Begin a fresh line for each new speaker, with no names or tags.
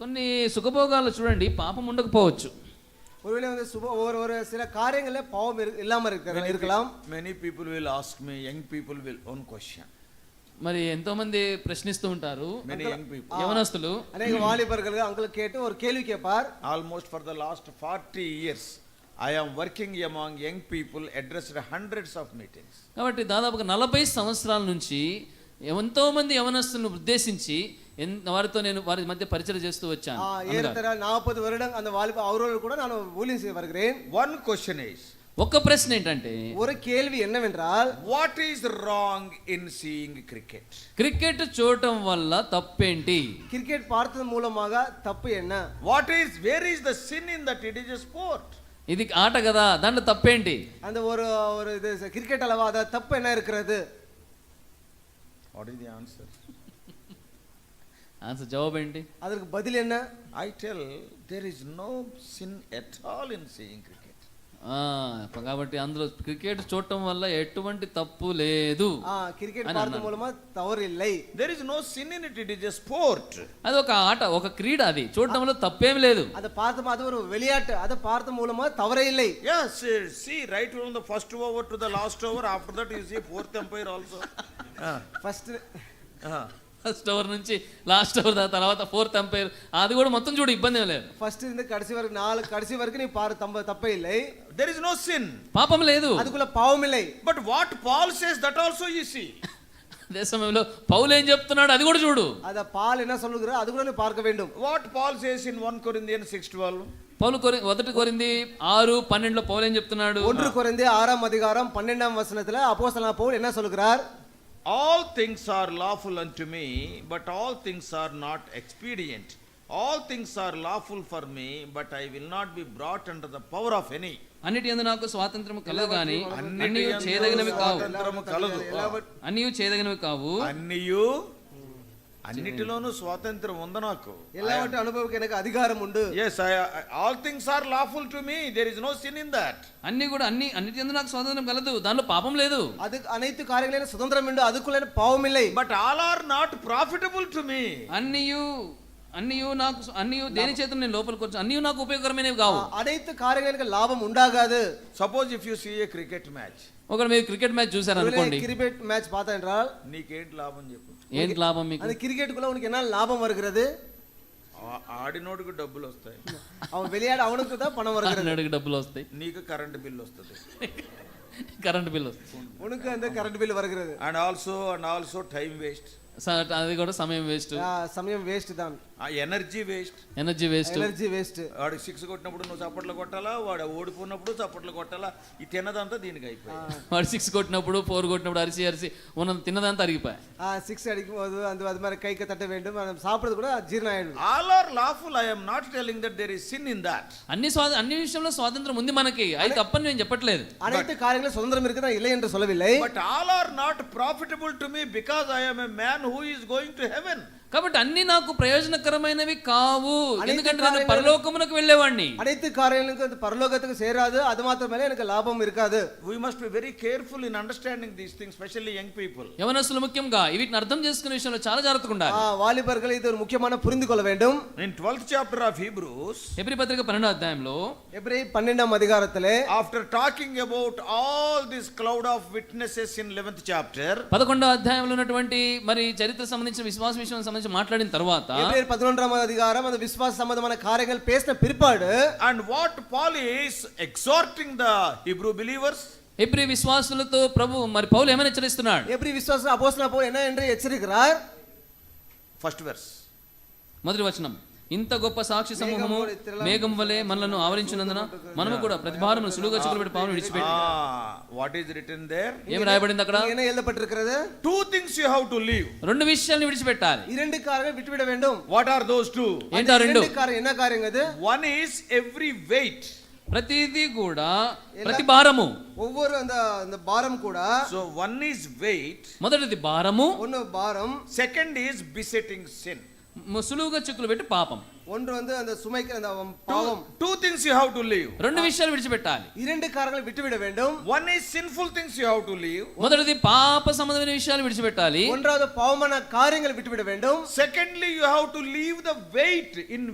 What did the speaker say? కొన్ని సుఖభోగాలు చూడండి పాపం ఉండకపోవచ్చు
ஒருவேளை வந்து சுப ஒரு ஒரு சில காரியங்கள்ல பாவம் இரு- இல்லாம இருக்கிற
Many pe-
இருக்கலாம்
Many people will ask me, young people will own question.
మరి ఎంతో మంది ప్రశ్నిస్తూ ఉంటారు
Many young people.
యవనస్తులు
அநேக வாலிபர்கள் அங்களுக்கு கேட்டு ஒரு கேள்வி கேட்பார்
Almost for the last forty years, I am working among young people, addressed hundreds of meetings.
కాబట్టి దాదాపుగా నలభై సంవత్సరాల నుంచి ఎంతో మంది యవనస్తులను ఉద్దేశించి ఎన్- వారితో నేను వారి మధ్య పరిచయం చేస్తూ వచ్చాను
ஆ, ஏறத்தர நாற்பது வருடம் அந்த வாலிப அவரோடு கூட நான் ஊழியம் செய்து வருகிறேன்
One question is,
ఒక్క ప్రశ్న ఏంటంటే
ஒரு கேள்வி என்னவென்றால்
what is wrong in seeing cricket?
Cricket చూడటం వల్ల తప్పేంటి
கிரிக்கெட் பார்த்தது மூலமாக தப்பு என்ன
What is, where is the sin in that it is a sport?
ఇది ఆట కదా దాంట్లో తప్పేంటి
அந்த ஒரு ஒரு இது ச- கிரிக்கெட் அளவா அதை தப்பு என்ன இருக்கிறது
What is the answer?
Answer జవాబు ఏంటి
அதற்கு பதில் என்ன
I tell, there is no sin at all in seeing cricket.
ఆ, కాబట్టి అందులో క్రికెట్ చూడటం వల్ల ఎటువంటి తప్పు లేదు
ஆ, கிரிக்கெட்
ஆனா,
பார்த்தது
ஆனா.
மூலமா தவறு இல்லை
There is no sin in it, it is a sport.
అది ఒక ఆట ఒక క్రీడ అది చూడటంలో తప్పేం లేదు
அதை பார்த்து அது ஒரு విளையாட்டு அதை பார்த்த மூலமா தவறே இல்லை
Yes, uh, see, right from the first over to the last over, after that you see fourth umpire also. Ah,
first
ah.
First over నుంచి లాస్ట్ ఓవర్ దాకా తర్వాత ఫోర్త్ అంపైర్ అది కూడా మొత్తం చూడు ఇబ్బంది ఏం లేదు
ஃபர்ஸ்ட் இருந்து கடைசி வரைக்கும் நாலு கடைசி வரைக்கும் நீ பாரு தம்ப தப்பே இல்லை
There is no sin.
పాపం లేదు
அதுக்குள்ள பாவம் இல்லை
But what Paul says, that also you see.
అదే సమయంలో పౌలు ఏం చెప్తున్నాడు అది కూడా చూడు
அத பால் என்ன சொல்லுகிற அது கூட நீ பார்க்க வேண்டும்
What Paul says in 1 Corinthians 6:12.
పౌలు కొరి మొదటి కొరింది ఆరు పన్నెండులో పౌలు ఏం చెప్తున్నాడు
ஒன்று குறைந்து ஆறாம் அதிகாரம் பன்னெண்டாம் வசனத்துல அப்போஸ்தலனான பவுல் என்ன சொல்லுகிறார்
All things are lawful unto me, but all things are not expedient. All things are lawful for me, but I will not be brought under the power of any.
అన్నిటి యందు నాకు స్వాతంత్రం కలదు కానీ అన్ని
యందు
చేయదగినవి కావు
స్వాతంత్రము కలదు.
అన్ని చేయదగినవి కావు
అన్నియు అన్నిటిలోనూ స్వాతంత్రం ఉంది నాకు
எல்லாவற்றையும் அனுபவிக்க எனக்கு அதிகாரம் உண்டு
yes all things are lawful to me there is no sin in that
అన్ని కూడా అన్ని అన్నిటి యందు నాకు స్వాతంత్రం కలదు దానిలో పాపం లేదు
அதுக்கு அனைத்து காரியங்களும் எனக்கு சுதந்திரம் உண்டு அதுக்குள்ள எனக்கு பாவம் இல்லை
but all are not profitable to me
అన్నియు అన్నియు నాకు అన్నియు దేని చేత నేను లోపలికి వచ్చి అన్నియు నాకు ఉపయోగకరమైనవి కావు
அனைத்து కారణంగా எனக்கு లాభం ఉండాగాదు
suppose if you see a cricket match
ఒకవేళ మీరు క్రికెట్ మ్యాచ్ చూసారనుకోండి
கிரிக்கெட் மேட்ச் பார்த்தா என்றால்
నీకేంటి లాభం చెప్పు
ఏంటి లాభం మీకు
அந்த கிரிக்கெட்டுக்குள்ள உனக்கு என்ன லாபம் வருகிறது
ఆ- ఆడినోడికి డబ్బులు వస్తాయి
அவன் விளையாட அவனுக்கு தான் பணம் வருகிறது
అడిగి డబ్బులు వస్తాయి
నీకు కరెంట్ బిల్ వస్తుంది
కరెంట్ బిల్ వస్తుంది
உனக்கு அந்த கரண்ட் பில் வருகிறது
and also and also time waste
స- అది కూడా సమయం వేస్ట్
ஆ, சமயம் వేస్ట్ தான்
ఆ energy waste
energy waste
energy waste
వాడు సిక్స్ కొట్టినప్పుడు నువ్వు చప్పట్లు కొట్టాలా వాడు ఓడిపోయినప్పుడు చప్పట్లు కొట్టాలా ఈ తిన్నదంతా దీనికి అయిపోయింది
వాడు సిక్స్ కొట్టినప్పుడు ఫోర్ కొట్టినప్పుడు అరిసి అరిసి ఉన్న తిన్నదంతా అరిగిపోయా
சிக்ஸ் அடிக்கும் போது அந்த அது மாதிரி கைக்கு தட்ட வேண்டும் நம்ம சாப்பிடுறது கூட ஜீரணம் ஆயிடும்
all are lawful I'm not telling that there is sin in that
అన్ని స్వా అన్ని విషయంలో స్వాతంత్రం ఉంది మనకి అది తప్పని నేను చెప్పట్లేదు
அனைத்து காரியங்களும் சுதந்திரம் இருக்குதா இல்லை என்று சொல்லவில்லை
but all are not profitable to me because I'm a man who is going to heaven
కాబట్టి అన్ని నాకు ప్రయోజనకరమైనవి కావు
అనేక
ఎందుకంటే నేను
కార్యాలు-
పరలోకమునకు వెళ్ళేవాడిని
அனைத்து காரியங்களுக்கு அந்த பரலோகத்துக்கு சேராது அது மாத்திரமே எனக்கு லாபம் இருக்காது
we must be very careful in understanding these things specially young people
యవనస్తులు ముఖ్యంగా వీటిని అర్థం చేసుకునే విషయంలో చాలా జాగ్రత్తగా ఉండాలి
ஆ, வாலிபர்கள் ఇది ஒரு ముఖ్యమైన పురిందు కొల வேண்டும்
in twelfth chapter of Hebrews
ఎబ్రి పత్రిక పన్నెండో అధ్యాయంలో
ఎబ్రి పన్నెండాం అధికారத்திலே
after talking about all this cloud of witnesses in eleventh chapter
పదకొండో అధ్యాయంలో ఉన్నటువంటి మరి చరిత్ర సంబంధించిన విశ్వాస విషయం సంబంధించి మాట్లాడిన తర్వాత
ఎబ్రి பதினொன்றாம் அதிகாரம் அந்த விசுவாச சம்பந்தமான காரியங்கள் பேசின பிற்பாடு
and what Paul is exhorting the Hebrew believers
ఎబ్రి విశ్వాసులతో ప్రభు మరి పౌలు ఏమైనా హెచ్చరిస్తున్నాడు
எப்ரி விசுவாச அப்போஸ்தலனான பவுல் என்ன என்று எச்சரிக்கிறார்
ఫస్ట్ వెర్స్
మొదటి వచనం ఇంత గొప్ప సాక్షి సమూహము మేఘం వలె మనలను ఆవరించినందున మనము కూడా ప్రతిభారమును సులువుగా చిక్కుబడి పావును
Ah,
విడిచిపెట్టి
వాట్ ఈస్ రిటర్న్ దేర్
ఏమి రాయబడింది అక్కడ
இங்கே என்ன எழுதப்பட்டிருக்கிறது
two things you have to leave
రెండు విషయాలను విడిచిపెట్టాలి
இரண்டு காரியங்கள் விட்டுவிட வேண்டும்
వాట్ ఆర్ దోస్ టూ
ఏంటా రెండు
இரண்டு காரியம் என்ன காரியங்க அது
వన్ ఈస్ ఎవ్రీ వెయిట్
ప్రతిదీ కూడా ప్రతి భారము
ஒவ்வொரு அந்த அந்த பாரம் கூட
సో వన్ ఈస్ వెయిట్
మొదటిది భారము
ஒன்று பாரம்
సెకండ్ ఈస్ బిసెటింగ్ సిన్
ము- సులువుగా చిక్కులు పెట్టి పాపం
ஒன்று வந்து அந்த சுமைக்கு அந்த பாவம்
Two, two things you have to leave.
రెండు విషయాలు విడిచిపెట్టాలి
இரண்டு కారణங்களை విడిచిపెట్ట வேண்டும்
One is sinful things you have to leave.
మొదటిది పాప సంబంధమైన విషయాలు విడిచిపెట్టాలి
ஒன்றாவது பாவமான காரியங்களை விட்டுவிட வேண்டும்
Secondly, you have to leave the weight in